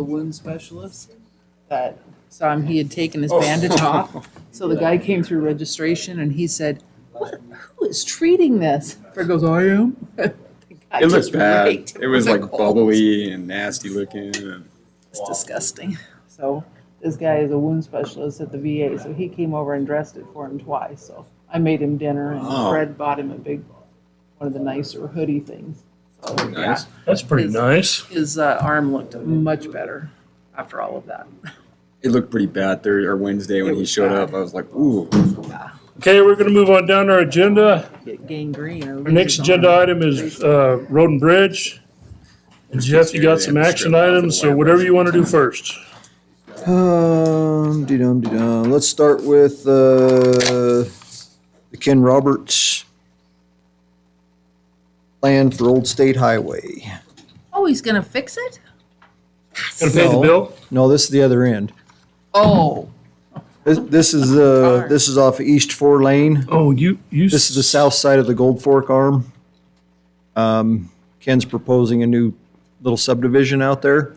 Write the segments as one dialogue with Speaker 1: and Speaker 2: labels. Speaker 1: the wound specialist that saw him, he had taken
Speaker 2: Oh.
Speaker 1: his bandage off. So the guy came through registration and he said, what, who is treating this? Fred goes, I am. The guy
Speaker 2: It
Speaker 1: just
Speaker 2: looked bad.
Speaker 1: raked him
Speaker 2: It was
Speaker 1: with a
Speaker 2: like
Speaker 1: cold.
Speaker 2: bubbly and nasty looking. and-
Speaker 1: It's disgusting. So this guy is a wound specialist at the VA, so he came over and dressed it for him twice. So I made him dinner and
Speaker 2: Wow.
Speaker 1: Fred bought him a big, one of the nicer hoodie things. So, yeah.
Speaker 2: Nice.
Speaker 3: That's pretty
Speaker 1: Is-
Speaker 3: nice.
Speaker 1: His uh, arm looked much better after all of that.
Speaker 2: It looked pretty bad Thursday or Wednesday
Speaker 1: It
Speaker 2: when he
Speaker 1: was
Speaker 2: showed
Speaker 1: bad. Oh,
Speaker 2: up. I was like, ooh.
Speaker 3: Okay, we're gonna move on down our agenda.
Speaker 1: Get gangrene. or
Speaker 3: Our next
Speaker 1: lose
Speaker 3: agenda
Speaker 1: arm.
Speaker 3: item is uh, Road and Bridge. And Jeff, you got some action items, so whatever you want to do first.
Speaker 4: Um, dee-dum, dee-dum. Let's start with, uh, the Ken Roberts plan for Old State Highway.
Speaker 1: Oh, he's gonna fix it?
Speaker 3: Gonna pay the
Speaker 4: No.
Speaker 3: bill?
Speaker 4: No, this is the other end.
Speaker 1: Oh,
Speaker 4: This, this is, uh, this is off East Four Lane.
Speaker 3: Oh, you, you,
Speaker 4: This is the south side of the Gold Fork Arm. Um, Ken's proposing a new little subdivision out there.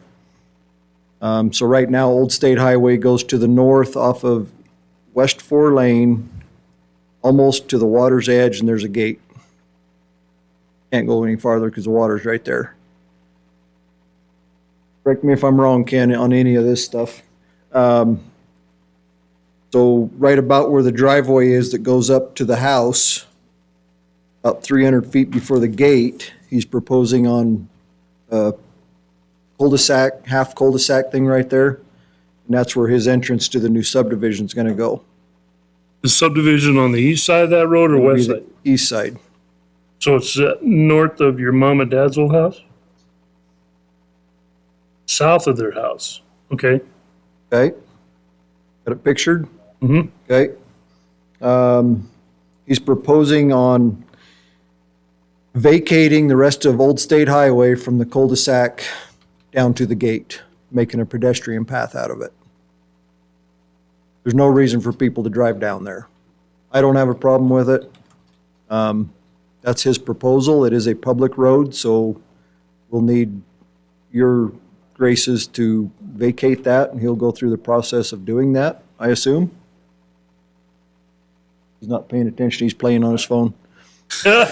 Speaker 4: Um, so right now, Old State Highway goes to the north off of West Four Lane, almost to the water's edge, and there's a gate. Can't go any farther because the water's right there. Correct me if I'm wrong, Ken, on any of this stuff. So right about where the driveway is that goes up to the house, about three hundred feet before the gate, he's proposing on a cul-de-sac, half cul-de-sac thing right there. And that's where his entrance to the new subdivision's gonna go.
Speaker 3: the subdivision on the east side of that road or
Speaker 4: Be
Speaker 3: west
Speaker 4: the
Speaker 3: side?
Speaker 4: East side.
Speaker 3: So it's uh, north of your mom and dad's old house? South of their house, okay?
Speaker 4: Okay? Got it pictured?
Speaker 3: Mhm.
Speaker 4: Okay. Um, He's proposing on vacating the rest of Old State Highway from the cul-de-sac down to the gate, making a pedestrian path out of it. There's no reason for people to drive down there. I don't have a problem with it. Um, That's his proposal. It is a public road, so we'll need your graces to vacate that, and he'll go through the process of doing that, I assume? He's not paying attention, he's playing on his phone.
Speaker 1: so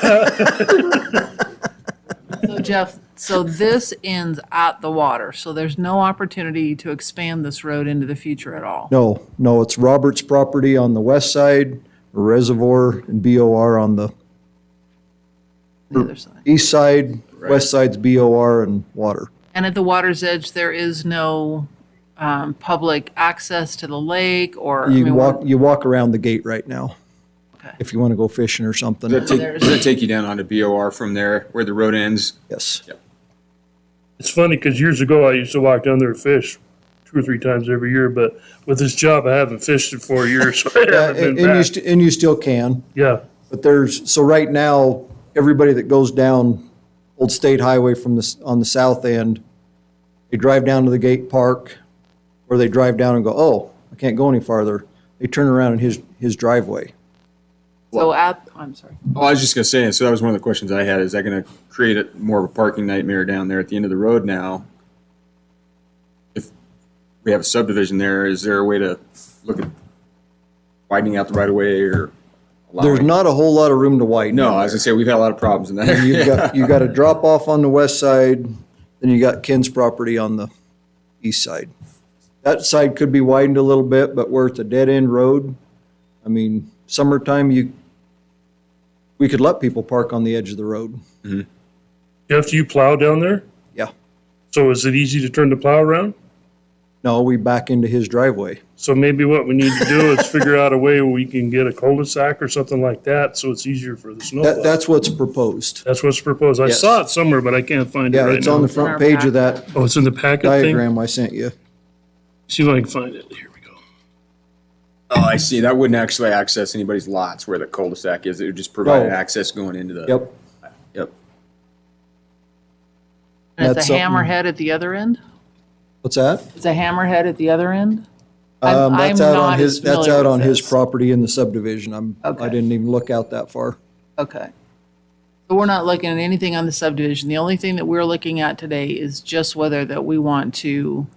Speaker 1: Jeff, so this ends at the water, so there's no opportunity to expand this road into the future at all?
Speaker 4: No, no, it's Robert's property on the west side, Reservoir and BOR on the
Speaker 1: The other side.
Speaker 4: east side, west side's BOR and water.
Speaker 1: And at the water's edge, there is no um, public access to the lake or? I
Speaker 4: You
Speaker 1: mean,
Speaker 4: walk, you walk around the gate right now, if you want to go fishing or
Speaker 2: Does
Speaker 4: something,
Speaker 2: that take,
Speaker 1: there's-
Speaker 2: does that take you down onto BOR from there where the road ends?
Speaker 4: yes.
Speaker 3: It's funny because years ago I used to walk down there and fish two or three times every year, but with this job I haven't fished in four years, so I
Speaker 4: Yeah,
Speaker 3: haven't
Speaker 4: And and
Speaker 3: been
Speaker 4: you,
Speaker 3: back.
Speaker 4: st- and you still can.
Speaker 3: Yeah,
Speaker 4: But there's, so right now, everybody that goes down Old State Highway from this, on the south end, they drive down to the gate park, or they drive down and go, oh, I can't go any farther. They turn around in his, his driveway.
Speaker 1: So at, I'm sorry.
Speaker 2: Oh, I was just gonna say, so that was one of the questions I had. Is that gonna create a, more of a parking nightmare down there at the end of the road now? If we have a subdivision there, is there a way to look at widening out the right of way or?
Speaker 4: There's
Speaker 2: allowing-
Speaker 4: not a whole lot of room to widen.
Speaker 2: No, I was gonna say, we've had a lot of problems in that
Speaker 4: You've
Speaker 2: area.
Speaker 4: got, you've got a drop off on the west side, then you got Ken's property on the east side. That side could be widened a little bit, but where it's a dead end road, I mean, summertime, you, we could let people park on the edge of the road.
Speaker 3: Jeff, do you plow down there?
Speaker 4: Yeah.
Speaker 3: So is it easy to turn the plow around?
Speaker 4: No, we back into his driveway.
Speaker 3: So maybe what we need to do is figure out a way where we can get a cul-de-sac or something like that, so it's easier for the
Speaker 4: That,
Speaker 3: snowplow.
Speaker 4: that's what's proposed.
Speaker 3: That's what's proposed. I
Speaker 4: Yes.
Speaker 3: saw it somewhere, but I can't find it
Speaker 4: Yeah,
Speaker 3: right
Speaker 4: it's on
Speaker 3: now.
Speaker 4: the front page of that
Speaker 3: Oh, it's in the packet thing?
Speaker 4: diagram I sent you.
Speaker 3: See if I can find it. Here we go.
Speaker 2: Oh, I see. That wouldn't actually access anybody's lots where the cul-de-sac is. It would just provide
Speaker 4: No.
Speaker 2: access going into the.
Speaker 4: Yep.
Speaker 2: Yep.
Speaker 1: And it's
Speaker 4: That's
Speaker 1: a
Speaker 4: something-
Speaker 1: hammerhead at the other end?
Speaker 4: What's that?
Speaker 1: It's a hammerhead at the other end? I'm-
Speaker 4: Um, that's
Speaker 1: I'm
Speaker 4: out on
Speaker 1: not
Speaker 4: his-
Speaker 1: as
Speaker 4: That's
Speaker 1: familiar
Speaker 4: out
Speaker 1: with
Speaker 4: on his
Speaker 1: this.
Speaker 4: property in the subdivision. I'm, I
Speaker 1: Okay.
Speaker 4: didn't even look out that far.
Speaker 1: Okay. So we're not looking at anything on the subdivision. The only thing that we're looking at today is just whether that we want to